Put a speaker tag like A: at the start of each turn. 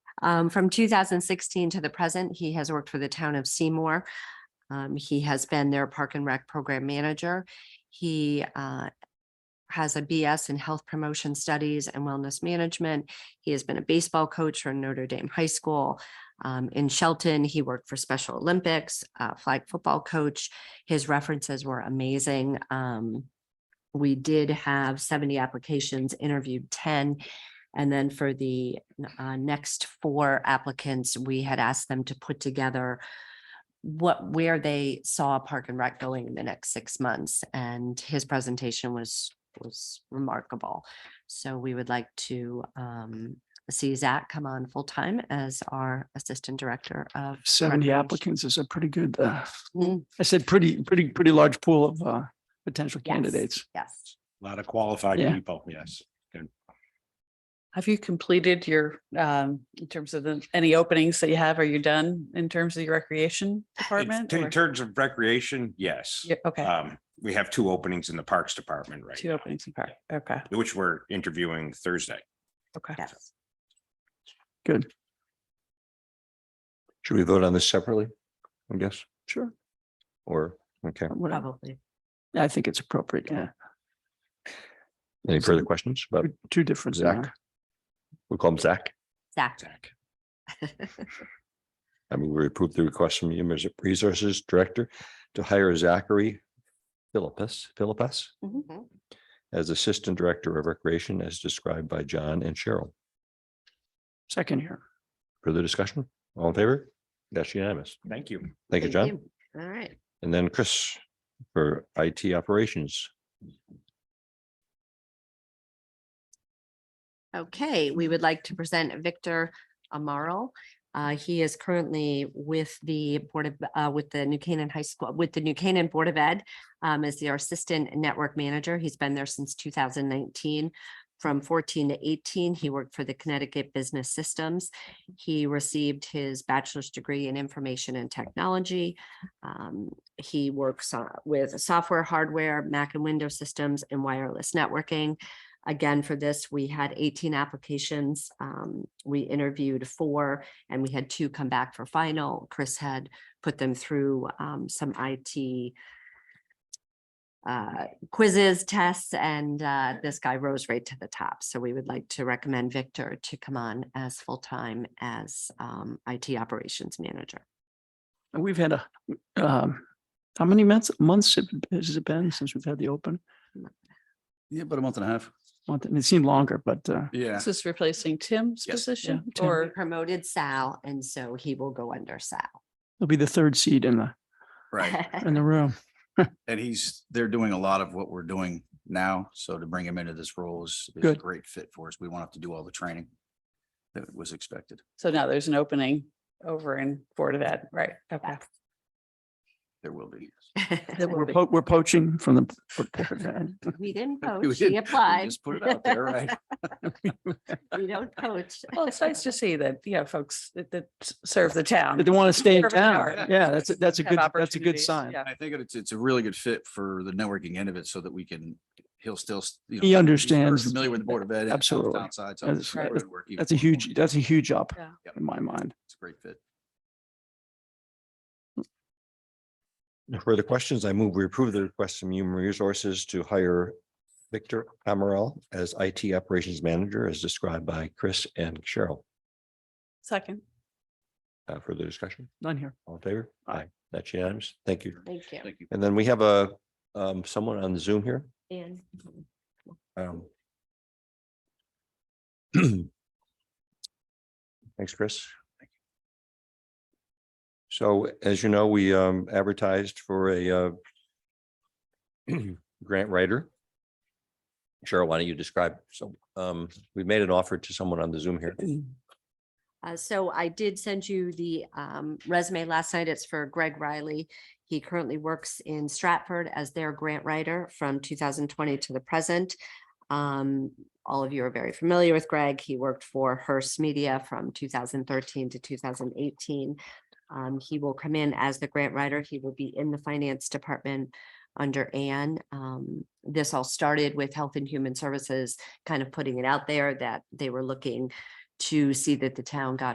A: Um, from two thousand sixteen to the present, he has worked for the town of Seymour. Um, he has been their Park and Rec Program Manager. He, uh, has a BS in Health Promotion Studies and Wellness Management. He has been a baseball coach for Notre Dame High School. Um, in Shelton, he worked for Special Olympics, uh, flag football coach. His references were amazing. Um, we did have seventy applications, interviewed ten. And then for the uh, next four applicants, we had asked them to put together what, where they saw Park and Rec going in the next six months. And his presentation was, was remarkable. So we would like to um, see Zach come on full-time as our Assistant Director of.
B: Seventy
A: Recreation.
B: applicants is a pretty good, uh,
A: Mm.
B: I said pretty, pretty, pretty large pool of, uh, potential
A: Yes.
B: candidates.
A: Yes.
C: A lot of qualified
B: Yeah.
C: people, yes.
D: Have you completed your, um, in terms of the, any openings that you have? Are you done in terms of your recreation
C: In
D: department?
C: in
D: or-
C: terms of recreation, yes.
D: Yeah,
B: Uh,
D: Okay,
C: Um, we have two openings in the Parks Department right
D: two
C: now,
D: openings in park. Okay,
C: which we're interviewing Thursday.
D: okay.
A: Yes.
B: Good,
E: Should we vote on this separately? I guess,
B: sure.
E: or, okay.
B: Whatever.
A: Probably.
B: I think it's appropriate, yeah.
E: Any further questions? But
B: Two- Two different. uh,
E: Zach? we'll call him Zach.
A: Zach.
C: Zach.
E: I mean, we approved the request from Human Resources Director to hire Zachary Philippus, Philippus
A: Mhm.
E: as Assistant Director of Recreation as described by John and Cheryl.
B: Second here.
E: Further discussion? All in favor? That's unanimous.
C: Thank you.
E: Thank you, John.
A: All right.
E: And then Chris for IT operations.
A: Okay, we would like to present Victor Amaro. Uh, He is currently with the Board of, uh, with the New Canaan High School, with the New Canaan Board of Ed um, as their Assistant Network Manager. He's been there since two thousand nineteen. From fourteen to eighteen, he worked for the Connecticut Business Systems. He received his bachelor's degree in Information and Technology. Um, He works uh, with software, hardware, Mac and Windows systems, and wireless networking again for this, we had eighteen applications. Um, we interviewed four and we had two come back for final. Chris had put them through um, some IT uh, quizzes, tests, and uh, this guy rose right to the top. So we would like to recommend Victor to come on as full-time as um, IT operations manager.
B: And we've had a, um, how many months, months have- has it been since we've had the open?
F: Yeah, about a month and a half.
B: Month, and it seemed longer, but, uh,
F: Yeah.
D: This is replacing Tim's
F: Yes.
D: position
B: Tim.
A: We
D: or,
A: promoted Sal, and so he will go under Sal.
B: it'll be the third seat in the,
F: Right.
B: in the room.
F: And he's, they're doing a lot of what we're doing now. So to bring him into this role is, is a
B: Good.
F: great fit for us. We won't have to do all the training that was expected.
D: so now there's an opening over in Board of Ed, right? Okay.
F: There will be.
D: There will
B: We're
D: be.
B: po- we're poaching from the. for- for that.
A: We didn't
B: Oh,
F: We
A: poach,
F: didn't-
A: he
F: we
A: applied.
F: Just put it out there, right?
A: We don't coach.
D: Well, it's nice to see that, you know, folks that, that s- serve the town.
B: They want to stay in
D: Service
B: town.
D: hours.
B: Yeah, that's, a- that's a
D: Have
B: good, that's a good
D: opportunities,
B: sign.
D: yeah.
F: I think it's, it's a really good fit for the networking end of it so that we can, he'll still. s- you know,
B: He
F: he's very
B: understands.
F: Familiar with the Board of Ed. and
B: Absolutely.
F: outside, so
B: That's-
F: it's really
B: that's-
F: work even
B: That's a
F: more.
B: huge, that's a huge up
D: Yeah.
F: Yep.
B: in my mind.
F: It's a great fit.
E: No further questions. I move we approve the request from Human Resources to hire Victor Amaral as IT Operations Manager as described by Chris and Cheryl.
D: Second,
E: Uh, Further discussion?
B: None here.
E: All in favor?
B: Aye.
E: That's unanimous. Thank you.
A: Thank you.
F: Thank you.
E: And then we have a um, someone on Zoom here.
A: And
E: Um, Thanks, Chris. So as you know, we um, advertised for a uh, grant writer. Cheryl, why don't you describe? So um, we made an offer to someone on the Zoom here.
A: uh, so I did send you the um, resume last night. It's for Greg Riley. He currently works in Stratford as their grant writer from 2020 to the present. Um, All of you are very familiar with Greg. He worked for Hearst Media from 2013 to 2018. Um, He will come in as the grant writer. He will be in the finance department under Ann. Um, This all started with Health and Human Services kind of putting it out there that they were looking to see that the town got